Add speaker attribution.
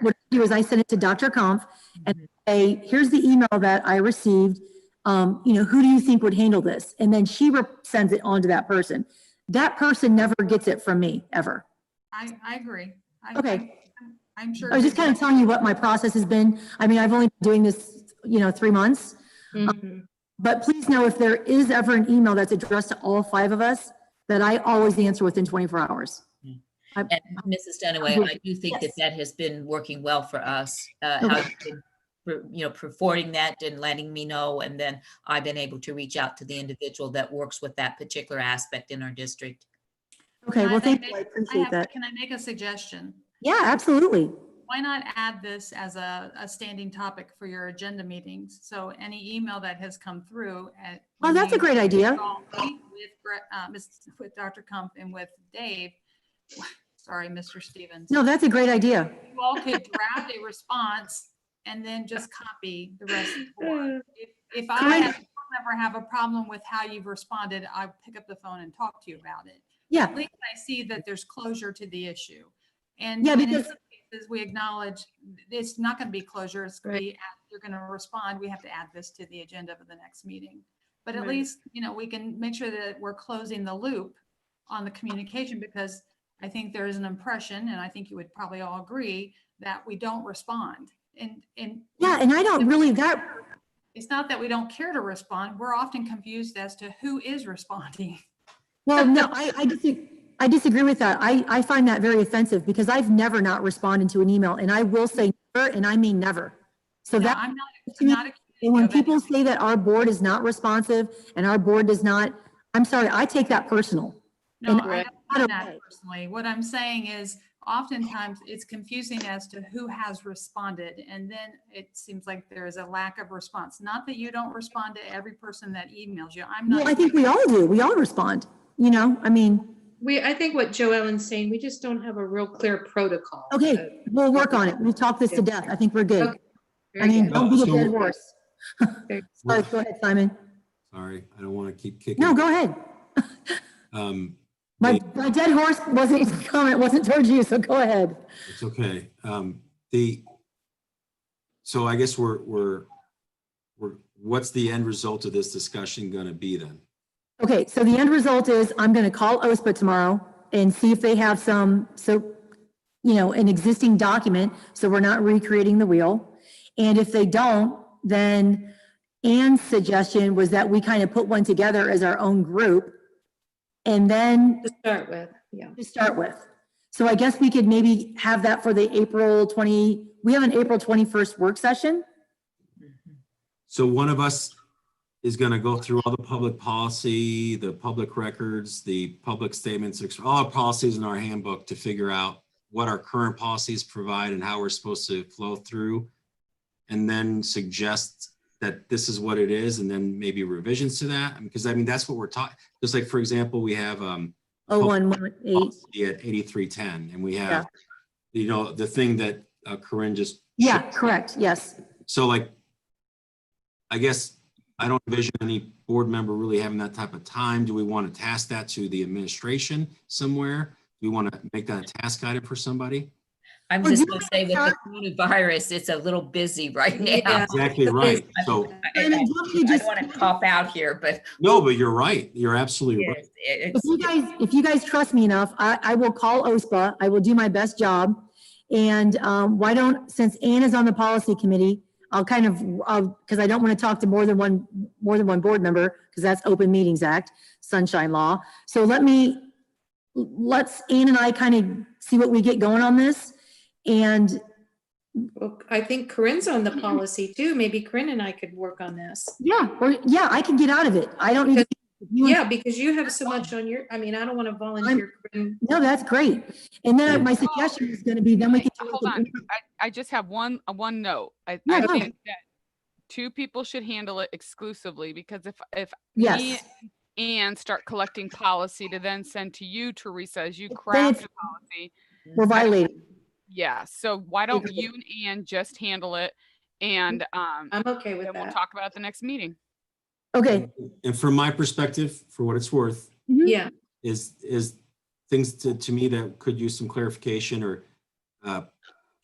Speaker 1: what I do is I send it to Dr. Kampf and say, here's the email that I received. Um, you know, who do you think would handle this? And then she re- sends it on to that person. That person never gets it from me, ever.
Speaker 2: I, I agree. I-
Speaker 1: Okay.
Speaker 2: I'm- I'm sure.
Speaker 1: I was just kind of telling you what my process has been. I mean, I've only been doing this, you know, three months. Um,
Speaker 2: Mm-hmm.
Speaker 3: Mhm.
Speaker 1: But please know if there is ever an email that's addressed to all five of us, that I always answer within 24 hours.
Speaker 3: And
Speaker 1: Mm-hmm.
Speaker 3: Mrs. Dunaway, I do think that that has been working well for us. uh, how you've been, per- You know, forwarding that and letting me know, and then I've been able to reach out to the individual that works with that particular aspect in our district.
Speaker 1: Okay,
Speaker 2: I
Speaker 1: well,
Speaker 2: think
Speaker 1: thank you. I
Speaker 2: I
Speaker 1: appreciate
Speaker 2: have,
Speaker 1: that.
Speaker 2: can I make a suggestion?
Speaker 1: Yeah, absolutely.
Speaker 2: Why not add this as a, a standing topic for your agenda meetings? So any email that has come through uh, at.
Speaker 1: Oh, that's a great idea.
Speaker 2: With, Gre- uh, Miss- with Dr. Kump and with Dave, sorry, Mr. Stevens.
Speaker 1: No, that's a great idea.
Speaker 2: You all could draft a response and then just copy the rest of the board. If- If I
Speaker 1: Correct.
Speaker 2: have- if I ever have a problem with how you've responded, I'll pick up the phone and talk to you about it.
Speaker 1: Yeah,
Speaker 2: At least I see that there's closure to the issue. And
Speaker 1: Yeah,
Speaker 2: and in
Speaker 1: because-
Speaker 2: some cases, we acknowledge it's not going to be closure, it's going to be, add- you're going to respond, we have to add this to the agenda for the next meeting. But at
Speaker 4: Right.
Speaker 2: least, you know, we can make sure that we're closing the loop on the communication because I think there is an impression, and I think you would probably all agree, that we don't respond. And, and.
Speaker 1: yeah, and I don't really, that,
Speaker 2: It's not that we don't care to respond, we're often confused as to who is responding.
Speaker 1: Well, no, I, I disagree, I disagree with that. I, I find that very offensive because I've never not responded to an email and I will say never, and I mean never. So
Speaker 2: No,
Speaker 1: that,
Speaker 2: I'm not,
Speaker 1: to
Speaker 2: I'm
Speaker 1: me-
Speaker 2: not. accusing
Speaker 1: and
Speaker 2: you
Speaker 1: when
Speaker 2: of any-
Speaker 1: people say that our board is not responsive and our board does not, I'm sorry, I take that personal.
Speaker 2: No,
Speaker 1: And
Speaker 2: I
Speaker 1: I
Speaker 2: don't mean
Speaker 1: don't
Speaker 2: that
Speaker 1: know.
Speaker 2: personally. What I'm saying is oftentimes it's confusing as to who has responded. And then it seems like there is a lack of response. Not that you don't respond to every person that emails you. I'm
Speaker 1: Well, I
Speaker 2: not,
Speaker 1: think we all do. We all respond, you know, I mean,
Speaker 4: We, I think what Joe Ellen's saying, we just don't have a real clear protocol. Uh,
Speaker 1: okay, we'll work on it. We've talked this to death. I think we're good.
Speaker 4: Okay,
Speaker 1: I
Speaker 4: very
Speaker 1: mean,
Speaker 4: good.
Speaker 1: don't beat a
Speaker 5: So-
Speaker 1: dead horse.
Speaker 4: Very-
Speaker 1: Sorry, go ahead, Simon.
Speaker 5: Sorry, I don't want to keep kicking.
Speaker 1: No, go ahead.
Speaker 5: Um,
Speaker 1: My,
Speaker 5: Nate.
Speaker 1: my dead horse wasn't, comment wasn't towards you, so go ahead.
Speaker 5: It's okay. Um, the, so I guess we're, we're, we're, what's the end result of this discussion going to be then?
Speaker 1: Okay, so the end result is I'm going to call OSPA tomorrow and see if they have some, so, you know, an existing document, so we're not recreating the wheel. And if they don't, then Anne's suggestion was that we kind of put one together as our own group. And then
Speaker 4: To start with, yeah.
Speaker 1: to start with. So I guess we could maybe have that for the April 20, we have an April 21st work session? Mm-hmm.
Speaker 5: So one of us is going to go through all the public policy, the public records, the public statements, ex- all our policies in our handbook to figure out what our current policies provide and how we're supposed to flow through. And then suggest that this is what it is and then maybe revisions to that. Because I mean, that's what we're talking, just like, for example, we have, um,
Speaker 1: Oh, one, one, eight.
Speaker 5: policy at eighty-three ten and we
Speaker 1: Yeah.
Speaker 5: have, you know, the thing that uh, Corinne just.
Speaker 1: Yeah, correct, yes.
Speaker 5: So like, I guess I don't envision any board member really having that type of time. Do we want to task that to the administration somewhere? Do we want to make that a task item for somebody?
Speaker 3: I'm
Speaker 1: Well,
Speaker 3: just
Speaker 1: do you
Speaker 3: gonna say with the coronavirus, it's a little busy right now.
Speaker 4: Yeah.
Speaker 5: Exactly right. So,
Speaker 3: I- I-
Speaker 1: Simon, don't you
Speaker 3: I
Speaker 1: just-
Speaker 3: don't want to cop out here, but
Speaker 5: no, but you're right. You're absolutely right.
Speaker 3: it's- it's-
Speaker 1: If you guys, if you guys trust me enough, I, I will call OSPA. I will do my best job. And um, why don't, since Ann is on the policy committee, I'll kind of, I'll, because I don't want to talk to more than one, more than one board member, because that's Open Meetings Act, sunshine law. So let me, let's, Ann and I kind of see what we get going on this. And
Speaker 4: Well, I think Corinne's on
Speaker 1: Mm-hmm.
Speaker 4: the policy too. Maybe Corinne and I could work on this.
Speaker 1: yeah, or, yeah, I can get out of it. I don't need. you and-
Speaker 4: Yeah, because you have so much on your, I mean, I don't want to volunteer. Corinne.
Speaker 1: No, that's great. And then my suggestion is going to be, then we can. do it
Speaker 6: Hold on,
Speaker 1: the-
Speaker 6: I, I just have one, uh, one note. I,
Speaker 1: Yeah,
Speaker 6: I
Speaker 1: go.
Speaker 6: think that two people should handle it exclusively because if, if me
Speaker 1: Yes.
Speaker 6: and start collecting policy to then send to you, Teresa, as you
Speaker 1: Then
Speaker 6: craft
Speaker 1: it's-
Speaker 6: the policy.
Speaker 1: We're violating.
Speaker 6: Yeah, so why don't
Speaker 1: Agree.
Speaker 6: you and Ann just handle it? And, um,
Speaker 4: I'm okay with
Speaker 6: then we'll
Speaker 4: that.
Speaker 6: talk about it at the next meeting.
Speaker 1: Okay.
Speaker 5: And from my perspective, for what it's worth,
Speaker 1: Mm-hmm.
Speaker 4: Yeah,
Speaker 5: is, is things to, to me that could use some clarification or uh,